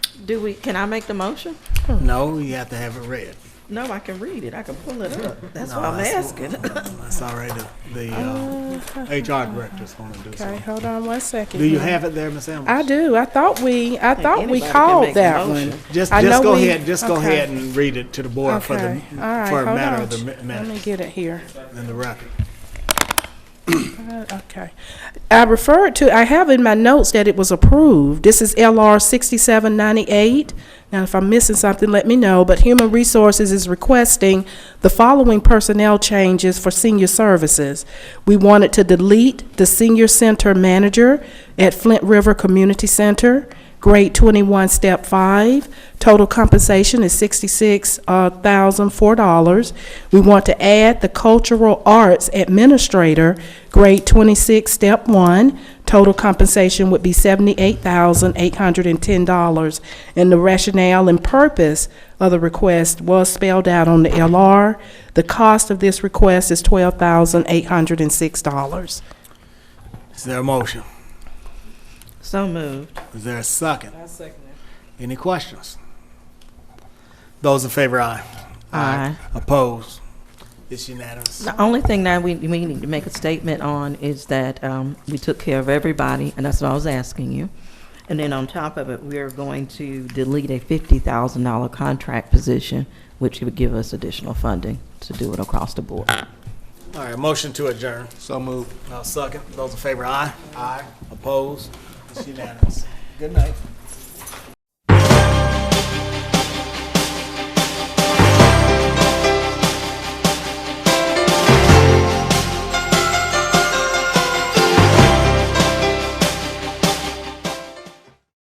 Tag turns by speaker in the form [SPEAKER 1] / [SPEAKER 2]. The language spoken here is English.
[SPEAKER 1] do we, can I make the motion?
[SPEAKER 2] No, you have to have it read.
[SPEAKER 1] No, I can read it. I can pull it up. That's
[SPEAKER 2] No,
[SPEAKER 1] why I'm
[SPEAKER 2] that's-
[SPEAKER 1] asking.
[SPEAKER 2] That's all right. The, the uh, HR director's going to do
[SPEAKER 3] Okay,
[SPEAKER 2] so.
[SPEAKER 3] hold on one second.
[SPEAKER 2] Do you have it there, Ms. Elmer?
[SPEAKER 3] I do. I thought we, I thought
[SPEAKER 1] anybody
[SPEAKER 3] we
[SPEAKER 1] can make
[SPEAKER 3] called
[SPEAKER 1] the
[SPEAKER 3] that
[SPEAKER 1] motion.
[SPEAKER 3] one.
[SPEAKER 2] Just,
[SPEAKER 3] I
[SPEAKER 2] just
[SPEAKER 3] know
[SPEAKER 2] go
[SPEAKER 3] we-
[SPEAKER 2] ahead. Just go
[SPEAKER 3] okay.
[SPEAKER 2] ahead and read it to the board for the
[SPEAKER 3] Okay, all right,
[SPEAKER 2] for a
[SPEAKER 3] hold
[SPEAKER 2] matter
[SPEAKER 3] on.
[SPEAKER 2] of the mi-
[SPEAKER 3] Let me
[SPEAKER 2] minutes
[SPEAKER 3] get it here.
[SPEAKER 2] in the record.
[SPEAKER 3] Uh, Okay. I referred to, I have in my notes that it was approved. This is LR 6798. Now, if I'm missing something, let me know, but Human Resources is requesting the following personnel changes for senior services. We wanted to delete the senior center manager at Flint River Community Center, grade 21, step 5. Total compensation is uh, $66,004. We want to add the cultural arts administrator, grade 26, step 1. Total compensation would be $78,810. And the rationale and purpose of the request was spelled out on the LR. The cost of this request is $12,806.
[SPEAKER 2] Is there a motion?
[SPEAKER 1] So moved.
[SPEAKER 2] Is there a second? Any questions? Those in favor, aye.
[SPEAKER 1] Aye.
[SPEAKER 2] Opposed? It's unanimous.
[SPEAKER 1] The only thing that we, we need to make a statement on is that um, we took care of everybody, and that's what I was asking you. And then on top of it, we are going to delete a $50,000 contract position, which would give us additional funding to do it across the board.
[SPEAKER 2] All right, motion to adjourn. So moved. I'll second. Those in favor, aye. Aye. Opposed? It's unanimous. Good night.